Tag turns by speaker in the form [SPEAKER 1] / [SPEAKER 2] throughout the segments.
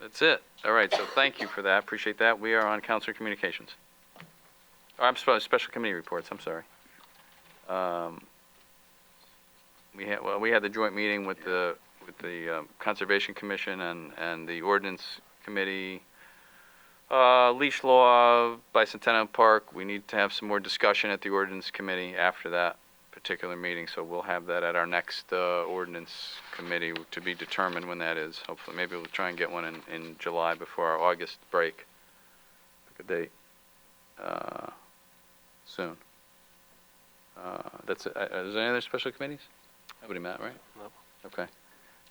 [SPEAKER 1] That's it. All right, so thank you for that. Appreciate that. We are on council communications. Oh, I'm supposed, special committee reports, I'm sorry. Um, We had, well, we had the joint meeting with the, with the um, Conservation Commission and, and the Ordinance Committee. Uh, leash law, bicentennial park, we need to have some more discussion at the Ordinance Committee after that particular meeting, so we'll have that at our next uh, ordinance committee to be determined when that is. Hopefully, maybe we'll try and get one in, in July before our August break. Pick a date uh, soon. Uh, that's it. Uh, Is there any other special committees? Nobody met, right?
[SPEAKER 2] No.
[SPEAKER 1] Okay.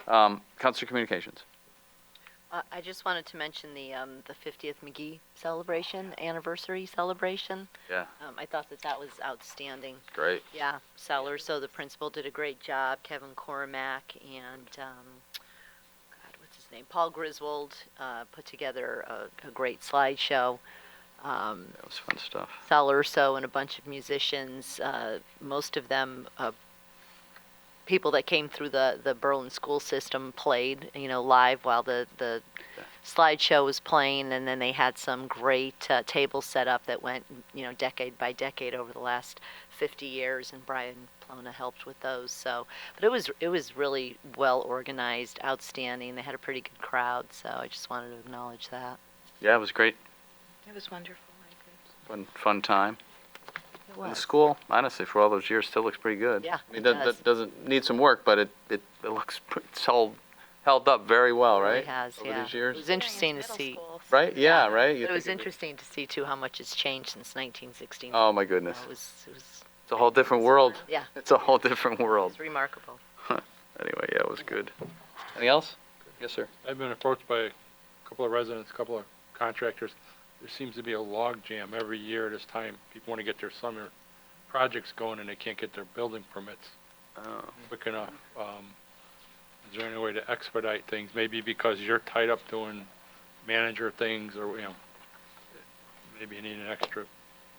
[SPEAKER 1] Um, Council Communications.
[SPEAKER 3] Uh, I just wanted to mention the, um, the 50th McGee celebration, anniversary celebration.
[SPEAKER 1] Yeah.
[SPEAKER 3] Um, I thought that that was outstanding.
[SPEAKER 1] Great.
[SPEAKER 3] Yeah, Sellers, so the principal did a great job, Kevin Cormack and, um, God, what's his name, Paul Griswold, uh, put together a, a great slideshow. Um,
[SPEAKER 1] That was fun stuff.
[SPEAKER 3] Thal Urso and a bunch of musicians, uh, most of them uh, people that came through the, the Berlin school system played, you know, live while the, the slideshow was playing. And then they had some great uh, table set up that went, you know, decade by decade over the last 50 years. And Brian Plona helped with those. So, but it was, it was really well organized, outstanding. They had a pretty good crowd. So I just wanted to acknowledge that.
[SPEAKER 1] Yeah, it was great.
[SPEAKER 3] It was wonderful.
[SPEAKER 1] Fun, fun time.
[SPEAKER 3] It
[SPEAKER 1] And the
[SPEAKER 3] was.
[SPEAKER 1] school, honestly, for all those years, still looks pretty good.
[SPEAKER 3] Yeah,
[SPEAKER 1] I mean,
[SPEAKER 3] it
[SPEAKER 1] that,
[SPEAKER 3] does.
[SPEAKER 1] that doesn't need some work, but it, it, it looks pr- it's held held up very well,
[SPEAKER 3] Really
[SPEAKER 1] right?
[SPEAKER 3] has,
[SPEAKER 1] Over
[SPEAKER 3] yeah.
[SPEAKER 1] these years,
[SPEAKER 3] It was interesting to
[SPEAKER 4] middle
[SPEAKER 3] see.
[SPEAKER 4] school, so
[SPEAKER 1] right? Yeah, right. You
[SPEAKER 3] But it was
[SPEAKER 1] think it'd
[SPEAKER 3] interesting to see too how much it's changed since 1969.
[SPEAKER 1] be- Oh my
[SPEAKER 3] You know,
[SPEAKER 1] goodness,
[SPEAKER 3] It was, it was,
[SPEAKER 1] it's a whole different world.
[SPEAKER 3] yeah,
[SPEAKER 1] It's a whole different
[SPEAKER 3] it
[SPEAKER 1] world.
[SPEAKER 3] was remarkable.
[SPEAKER 1] Anyway, yeah, it was good. Anything else? Yes, sir.
[SPEAKER 5] I've been approached by a couple of residents, a couple of contractors. There seems to be a log jam every year this time. People want to get their summer projects going and they can't get their building permits
[SPEAKER 1] Oh.
[SPEAKER 5] quick enough. Um, is there any way to expedite things? Maybe because you're tied up doing manager things or, you know, maybe you need an extra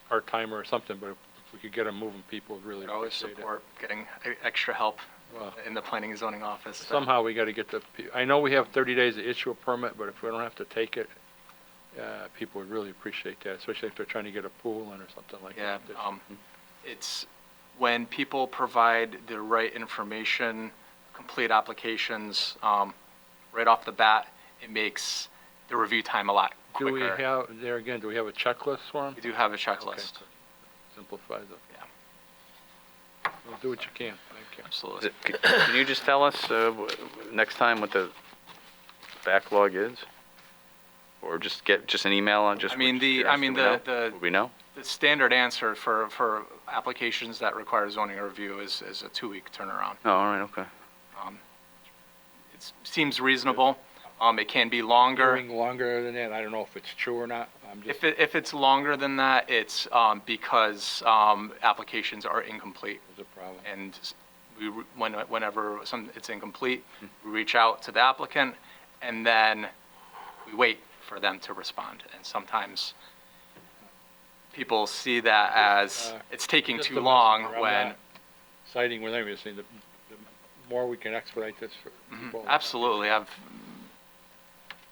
[SPEAKER 5] part-timer or something, but if we could get them moving, people would really
[SPEAKER 2] I'd always
[SPEAKER 5] appreciate it.
[SPEAKER 2] support getting e- extra help
[SPEAKER 5] Well,
[SPEAKER 2] in the planning and zoning office. so-
[SPEAKER 5] somehow we gotta get the, pe- I know we have thirty days to issue a permit, but if we don't have to take it, uh, people would really appreciate that, especially if they're trying to get a pool in or something like
[SPEAKER 2] Yeah,
[SPEAKER 5] that.
[SPEAKER 2] um, it's when people provide the right information, complete applications, um, right off the bat, it makes the review time a lot
[SPEAKER 5] Do we
[SPEAKER 2] quicker.
[SPEAKER 5] have, there again, do we have a checklist for them?
[SPEAKER 2] We do have a checklist,
[SPEAKER 5] Simplifies it.
[SPEAKER 2] Yeah.
[SPEAKER 5] Well, Do what you can, thank you.
[SPEAKER 2] absolutely.
[SPEAKER 1] Is it- c- Can you just tell us uh, w- w- next time what the backlog is? Or just get, just an email on just?
[SPEAKER 2] I mean,
[SPEAKER 1] just
[SPEAKER 2] the-
[SPEAKER 1] curious,
[SPEAKER 2] I mean,
[SPEAKER 1] do we know?
[SPEAKER 2] the- the-
[SPEAKER 1] Would We know?
[SPEAKER 2] The standard answer for, for applications that require zoning review is, is a two-week turnaround.
[SPEAKER 1] Oh, all right, okay.
[SPEAKER 2] It seems reasonable. Um, it can be longer.
[SPEAKER 5] Hearing longer than that, I don't know if it's true or not, I'm just,
[SPEAKER 2] If, it, if it's longer than that, it's um, because um, applications are incomplete,
[SPEAKER 5] it's a problem.
[SPEAKER 2] and we, re- when- whenever some, it's incomplete,
[SPEAKER 5] Hmm.
[SPEAKER 2] we reach out to the applicant, and then we wait for them to respond. And sometimes people see that as
[SPEAKER 5] uh,
[SPEAKER 2] it's taking
[SPEAKER 5] Just
[SPEAKER 2] too
[SPEAKER 5] the message
[SPEAKER 2] long
[SPEAKER 5] around
[SPEAKER 2] when,
[SPEAKER 5] that Citing with them, you see, the, the more we can expedite this for people.
[SPEAKER 2] Mm-hmm. absolutely, I've,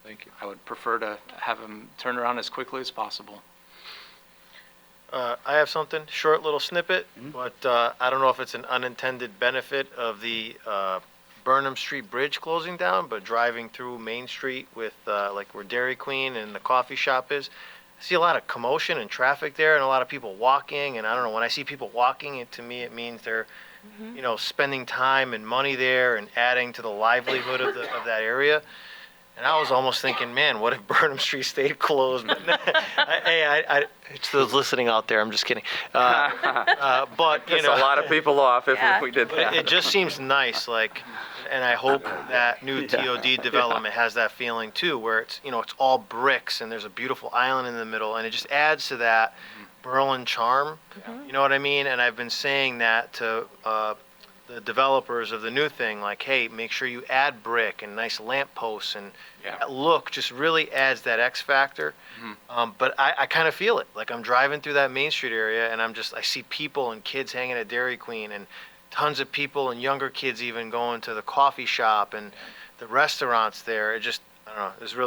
[SPEAKER 5] Thank you.
[SPEAKER 2] I would prefer to have them turn around as quickly as possible.
[SPEAKER 6] Uh, I have something, short little snippet, but uh, I don't know if it's an unintended benefit of the uh, Burnham Street Bridge closing down, but driving through Main Street with, uh, like where Dairy Queen and the coffee shop is, I see a lot of commotion and traffic there and a lot of people walking, and I don't know, when I see people walking, it, to me, it means they're, you know, spending time and money there and adding to the livelihood of the, of that area. And I was almost thinking, man, what if Burnham Street stayed closed? But I, hey, I, I, it's those listening out there. I'm just kidding. Uh, uh, but you
[SPEAKER 1] Piss a
[SPEAKER 6] know,
[SPEAKER 1] lot of people off if
[SPEAKER 4] Yeah.
[SPEAKER 1] we did
[SPEAKER 6] but it, it
[SPEAKER 1] that.
[SPEAKER 6] just seems nice, like, and I hope that new TOD development has that feeling too, where it's you know it's all bricks and there's a beautiful island in the middle, and it just adds to that Berlin charm. You know what I mean? And I've been saying that to uh, the developers of the new thing, like, hey, make sure you add brick and nice lamp posts and
[SPEAKER 2] Yeah.
[SPEAKER 6] that look just really adds that X factor. Um, but I, I kind of feel it. Like I'm driving through that Main Street area, and I'm just I see people and kids hanging at Dairy Queen, and tons of people and younger kids even going to the coffee shop and the restaurants there. It just I don't know. It's really